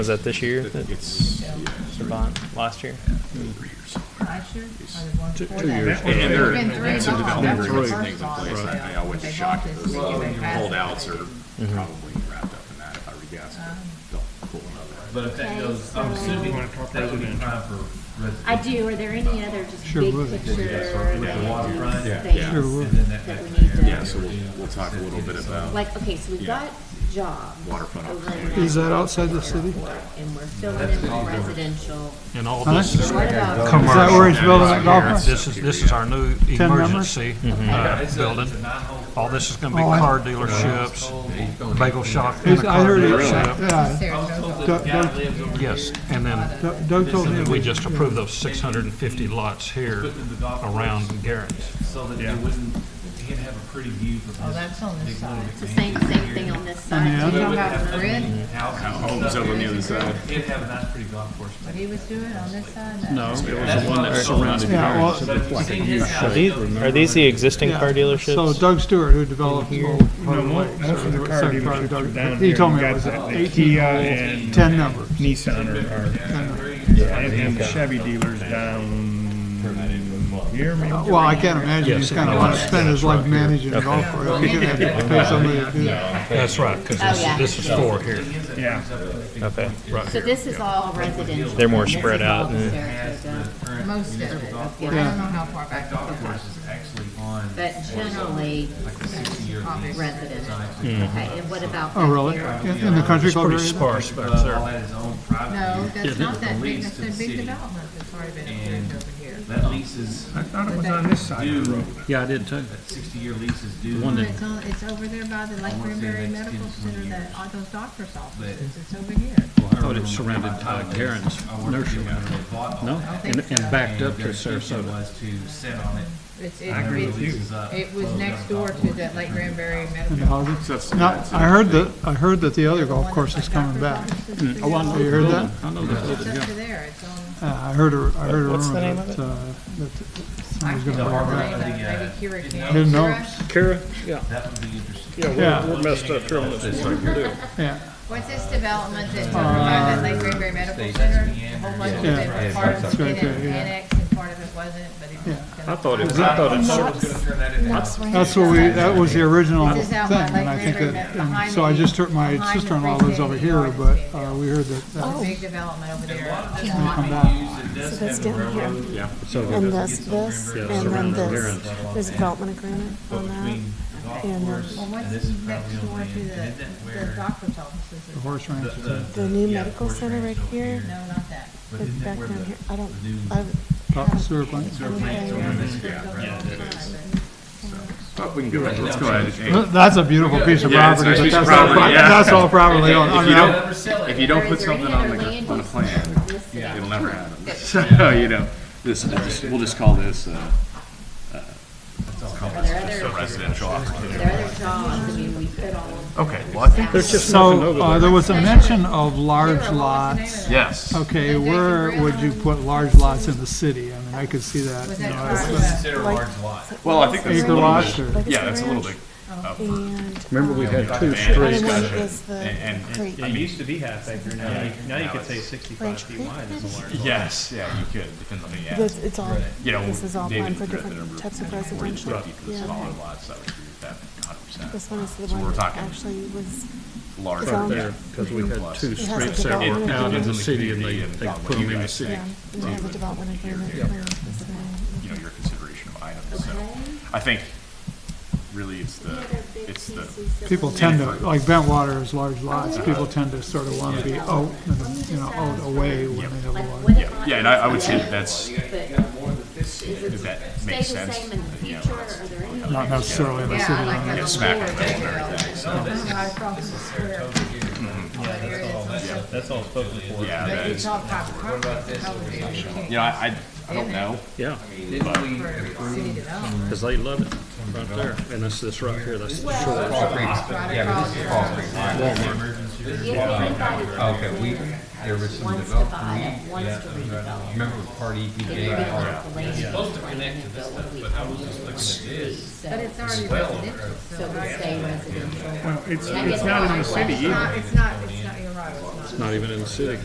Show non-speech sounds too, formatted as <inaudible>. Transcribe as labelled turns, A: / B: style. A: Was that this year? that-
B: It's,
A: The bond last year?
C: Last year, or the one
D: Two-
C: before
D: two
C: that?
D: years.
C: There've
B: and and there,
C: been three
B: and some
C: bonds. That was
B: development agreements
C: the first
B: and things in
C: bond,
B: place,
C: so
B: I I always
C: they
B: was shocked
C: bought
B: at those
C: this because they passed
B: holdouts are
C: it.
B: probably wrapped up in that, if I reguess. They'll pull another.
E: But if that goes, I'm assuming that would be prime for residents.
F: I do, are there any other just
D: Sure
F: big
D: would.
F: picture
E: With the
F: land
E: waterfront.
F: use
E: Yeah.
F: things
B: Yeah.
D: Sure would.
E: And then that
F: that
E: back
F: we need
E: area.
B: Yeah, so we'll, we'll talk a little bit about,
F: Like, okay, so we've
B: Yeah.
F: got jobs.
B: Waterfront
F: over in
B: opportunities.
D: Is that outside the city?
F: And we're filling in with residential.
G: And all
D: Huh?
G: this,
D: Is
F: What about?
D: that where he's building that golf course?
G: this is, this is our new
D: members?
G: emergency
E: Yeah,
G: uh,
E: it's a-
G: building.
E: it's a nine-hole
G: All this is gonna be
D: Mm-hmm. Oh, I-
G: car dealerships, bagel shop, and
D: Is-
G: a
D: I
G: car
D: heard it,
G: dealership.
D: yeah,
E: I was told
C: Saratoga.
E: that the guy
D: Don't-
E: lives over here.
G: Yes, and then
D: Doug- Doug told me. it
G: we
D: was-
G: just approved those six hundred and fifty lots here
E: Putting the golf course
G: around Garrett's.
E: So that it wouldn't, he'd have a pretty view from
C: Oh,
E: his.
C: that's on this side.
F: It's the same, same thing on this
D: Yeah.
F: side.
C: You
F: too.
C: don't have grid,
B: homes over on the other side.
E: He'd have a nice pretty golf course.
C: what he was doing on this side?
H: No, it was
E: That's
H: the one
E: what
H: that
E: I'm
H: surrounded
E: told.
D: Yeah, well,
E: But if you see his house.
A: Are these, are these the existing
D: Yeah.
A: car
D: So
A: dealerships?
D: Doug Stewart, who developed old Harbor
H: mo-
D: Lake.
H: most of the car
D: second
H: dealerships
D: Doug-
H: are down
D: He
H: here.
D: told me
H: You
D: it
H: got
D: was
H: the- the
D: eighteen
H: Kia
D: holes,
H: and-
D: ten numbers.
H: Nissan or, or, and and the Chevy dealers down here, maybe?
D: Uh,
H: Oh,
D: Well, I can't imagine he's kind of want to spend his life managing a golf course. He's gonna have to pay somebody to do that.
G: That's right, because
F: Oh, yeah.
G: this, this is four here.
H: Yeah.
A: Okay.
F: So this is all residential.
A: They're more
F: and this is
A: spread
F: all
A: out,
F: the
A: yeah.
F: Saratoga.
C: Most of it, okay, I don't know
D: Yeah.
C: how far back.
E: That golf course is actually on.
F: But generally, residential. Okay, and what about?
D: Oh, really?
F: back
D: In in the country club
G: Pretty
D: area?
G: sparse
E: Uh,
G: back
E: all
G: there.
E: that is owned private.
C: No,
E: use.
C: that's not that big,
E: lease
C: that's
E: to the
C: a big
E: city.
C: development that's already been approved over here.
E: That lease is
H: I thought it was on this side of the road.
E: Yeah, I did too. That sixty-year lease is due.
C: Well, It's on, it's over there by the Lake Granbury Medical Center, that, all those doctor's offices, it's over here.
E: Thought
H: it surrounded, uh, Garen's nursery. No,
C: and- and
H: backed
E: Was to sit on it. uh,
C: It's,
E: I agree
C: it
E: with
C: was,
E: you.
C: it was next door to that Lake Granbury Medical.
D: In the houses? Now, I heard that, I heard that the other golf course is coming back.
C: Oh, I
D: You heard that?
H: I know this
C: It's up to there, it's on.
D: Uh, I heard a, I heard a
A: What's the
D: rumor
A: name of it?
D: that, uh, that somebody's
C: I
D: gonna
C: can't
D: walk
C: remember
D: out.
C: the name of it. Maybe Keurig Candy.
D: Who knows?
E: uh,
G: Kara,
E: That would be interesting.
D: Yeah.
G: we're messed up here on this one.
D: Yeah,
C: What's this development that's over by the Lake Granbury Medical Center? A
I: Oh
C: whole bunch of
D: Yeah.
C: it was part of
D: It's
C: it
D: right there, yeah.
C: annexed and part of it wasn't, but it was.
D: Yeah.
C: I
G: I thought it
E: Sort of gonna turn that into house.
D: that's what we, that was the original
C: This
D: thing,
C: is out by Lake
D: and I think
C: River,
D: that,
C: behind
D: and so I
C: the-
D: just heard, my
C: behind the
D: sister-in-law lives over
C: freestanding
D: here,
C: garden
D: but,
C: stand.
D: uh, we heard that,
C: It's a
D: that
C: big development over there.
D: come back.
E: So
I: that's down here.
B: yeah.
I: And this, this, and then this, there's a development agreement on that. And
C: Well,
I: then
C: what's next door to the, the doctor's offices?
D: the
C: is-
D: horse ranch. is in-
I: the new medical center right here,
C: No, not that.
I: it's back down here. I don't, I,
D: Top sewer plant.
B: But Oh, we can go ahead, let's go ahead. Hey,
D: That's a beautiful piece of
B: Yeah, it's a
D: property, but
B: piece of
D: that's all,
B: property,
D: pri-
B: yeah.
D: that's all privately owned. I
B: If
D: mean,
B: you
D: I-
B: don't, if you don't put <laughs> something on the, on a plan, it'll never happen. So, you know, this, we'll just- we'll just call this, uh,
F: Are there other,
B: residential
F: are
B: opportunity.
F: there other jobs? I mean, we could all.
B: Okay, well, I think.
F: There's just.
D: So, uh, there was a mention of large
C: What's the name of that?
D: lots.
B: Yes.
D: Okay,
C: That they
D: where
C: can
D: would you
C: rent.
D: put large lots in the city? I mean, I could see that,
C: Was
D: you
C: that
D: know,
C: part
D: as
C: of
D: a
C: the-
E: Consider a large lot.
B: Well, I think that's a
D: acre
B: little
D: lots
B: bit,
D: or,
B: yeah, that's a little bit.
I: And.
H: Remember,
I: um,
H: we had two
I: The
H: streets.
I: other one is the
B: And- and-
I: creek.
B: I
J: It
B: mean,
J: used to be half acre, now you, now you could say sixty-five
I: Ranch
J: feet
I: Creek,
J: wide is a large.
B: yes, yeah, you could, depends on the, yeah.
I: This, it's all,
B: You know,
I: this is all
B: David
I: planned for
B: threw out the
I: different
B: number
I: types of
B: 40 to
I: residential.
B: 50 for the
I: Yeah.
B: smaller lots, I would agree with that 100%.
I: This one is the
B: So we're
I: one that
B: talking
I: actually was,
B: large.
I: it's on
B: yeah.
I: there,
H: Because we had two
I: it has
H: streets
I: a
H: that were
I: development
H: out in
I: agreement.
H: the city and they, they put them in the city.
I: Yeah, and we have a development agreement. for this one.
B: you know, your consideration of items, so I think really it's the, it's the,
D: people tend to, like Bentwater is large lots, people tend to sort of want to be out, and, you know, out away when they have a
F: Like,
D: large.
F: what if
B: yeah,
F: I-
B: yeah, and I, I would say that that's,
F: But is it
B: that
F: stay the
B: makes sense,
F: same in the
B: you know,
F: future, or are there any?
D: Not necessarily in the
C: Yeah,
D: city.
C: I like that.
B: smack in the middle of everything, so,
J: That's all spoken for.
B: yeah, that
C: It's
B: is,
C: all private property, it's all over there. You can't
B: you know, I, I, I don't know.
G: Yeah,
C: for city development.
G: because they love it right there. And that's this right here, that's the shore.
C: Right across the
F: If anybody
K: Okay, we, there was some
F: wants to
K: development,
F: buy it, wants to redevelop,
K: remember party
F: then
K: EPA?
F: you're gonna want the land. Supposed to connect to this stuff, but I was just looking at this.
C: But it's already residential, so.
F: So we
C: right?
F: stay residential.
H: It's,
F: I guess
H: it's not in the
F: like-
H: city
C: It's
H: either.
C: not, it's not, it's not, you're right, it's not.
G: It's not even in the city.